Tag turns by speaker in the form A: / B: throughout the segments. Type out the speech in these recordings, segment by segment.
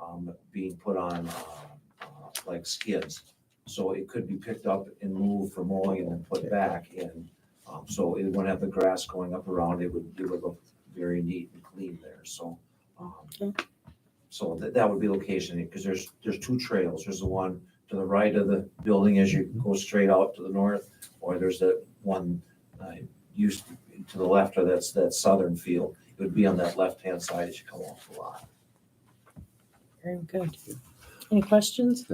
A: um, being put on, uh, like skids. So it could be picked up and moved for mowing and then put back in. Um, so it wouldn't have the grass going up around, it would, it would look very neat and clean there, so. um, So that, that would be location, because there's, there's two trails, there's the one to the right of the building as you go straight out to the north, or there's the one, uh, used to the left of that's, that southern field. It would be on that left-hand side as you come off the lot.
B: Very good. Any questions?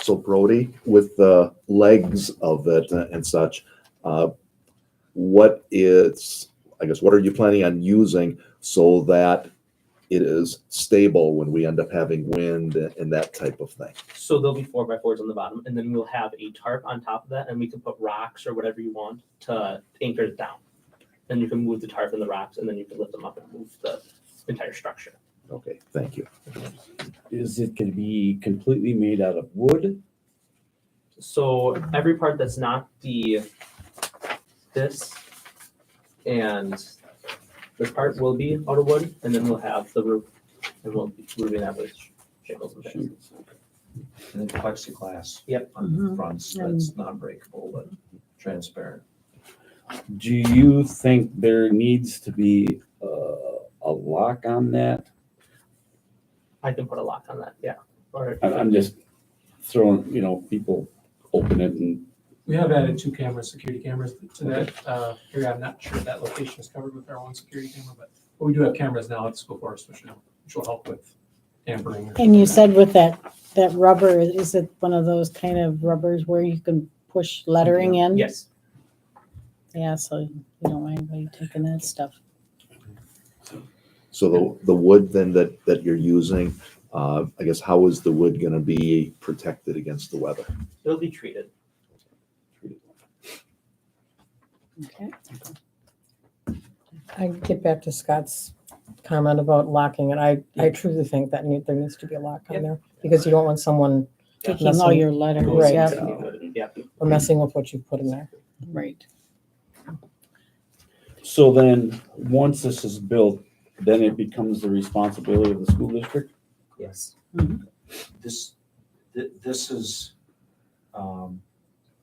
C: So Brody, with the legs of it and such, uh, what is, I guess, what are you planning on using so that it is stable when we end up having wind and that type of thing?
D: So there'll be four by fours on the bottom, and then we'll have a tarp on top of that, and we can put rocks or whatever you want to anchor it down. Then you can move the tarp and the rocks, and then you can lift them up and move the entire structure.
C: Okay, thank you.
E: Is it going to be completely made out of wood?
D: So every part that's not the this and this part will be out of wood, and then we'll have the roof, and we'll be roofing that with shingles and things.
A: And then plexiglass.
D: Yep.
A: On
B: Mm-hmm.
A: the fronts, that's non-breakable, but transparent.
E: Do you think there needs to be uh, a lock on that?
D: I can put a lock on that, yeah. Or
E: I- I'm just throwing, you know, people open it and
F: We have added two cameras, security cameras to that uh, area. I'm not sure if that location is covered with our own security camera, but but we do have cameras now at the school forest, which will, which will help with tampering. or
B: And you
F: something
B: said with that, that rubber, is it one of those kind of rubbers where you can push lettering in?
D: yes.
B: Yeah, so you don't mind anybody taking that stuff.
C: So the, the wood then that, that you're using, uh, I guess, how is the wood going to be protected against the weather?
D: It'll be treated.
B: Okay.
G: I get back to Scott's comment about locking, and I, I truly think that need- there needs to be a lock on there, because you don't want someone
B: Taking all your letters.
G: Right.
B: yeah,
D: Yeah.
G: messing with what you've put in there.
B: Right.
E: so then, once this is built, then it becomes the responsibility of the school district?
D: Yes.
A: This, thi- this is, um,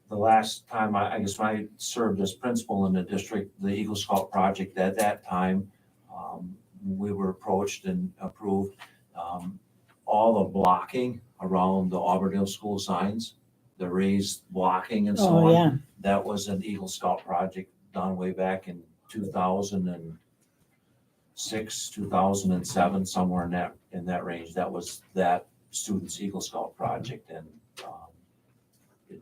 A: the last time, I, I guess when I served as principal in the district, the Eagle Scout project, at that time, um, we were approached and approved, um, all the blocking around the Auburndale school signs, the raised blocking and so on.
B: Oh, yeah.
A: That was an Eagle Scout project done way back in two thousand and six, two thousand and seven, somewhere in that, in that range. That was that student's Eagle Scout project and, um, it,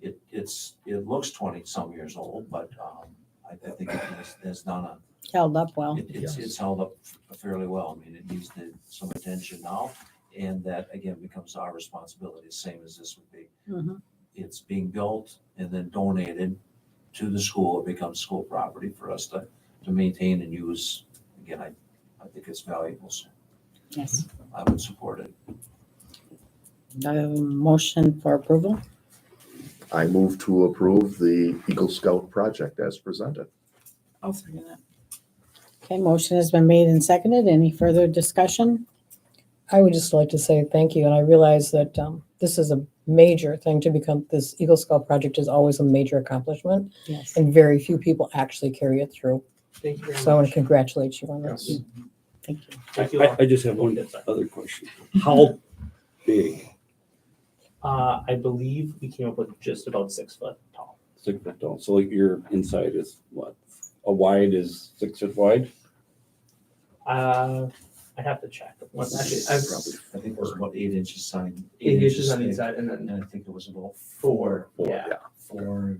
A: it, it's, it looks twenty-some years old, but, um, I, I think it's, it's done a,
B: Held up well.
A: it- It's, it's held up fairly well. I mean, it needs the- some attention now. And that again becomes our responsibility, same as this would be.
B: Mhm.
A: It's being built and then donated to the school. It becomes school property for us to, to maintain and use. Again, I, I think it's valuable, so
B: Yes.
A: I would support it.
B: I have a motion for approval.
C: I move to approve the Eagle Scout project as presented.
B: I'll second that. Okay, motion has been made and seconded. Any further discussion?
G: I would just like to say thank you, and I realize that um, this is a major thing to become, this Eagle Scout project is always a major accomplishment,
B: Yes.
G: and very few people actually carry it through.
D: Thank you very
G: So I want
D: much.
G: to congratulate you on this.
B: Thank you.
D: Thank you.
E: I, I just have one other question. How big,
D: Uh, I believe we came up with just about six foot tall.
E: six foot tall? So like your inside is what? A wide is six foot wide?
D: Uh, I have to check. Let's- Actually, I've
A: I think it was about eight inches sign.
D: eight inches on the
A: thick,
D: inside and
A: And
D: then
A: then I think it was about
D: four.
E: Four,
D: Yeah.
A: four,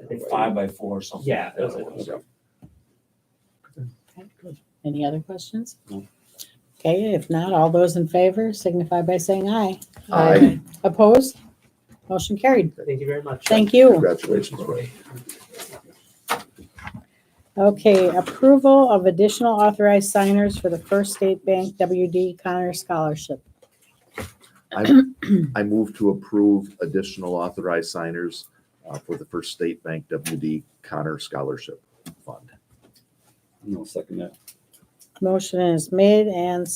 D: I think
A: five by four or something.
D: Yeah, it was-
A: That
E: Okay.
B: Okay, good. Any other questions?
E: No.
B: Okay, if not, all those in favor signify by saying aye.
C: Aye.
B: Opposed? Motion carried.
D: Thank you very much.
B: Thank you.
C: Congratulations, Brody.
B: Okay, approval of additional authorized signers for the First State Bank WD Connor Scholarship.
C: I move to approve additional authorized signers uh, for the First State Bank WD Connor Scholarship Fund.
E: No, second that.
B: Motion is made and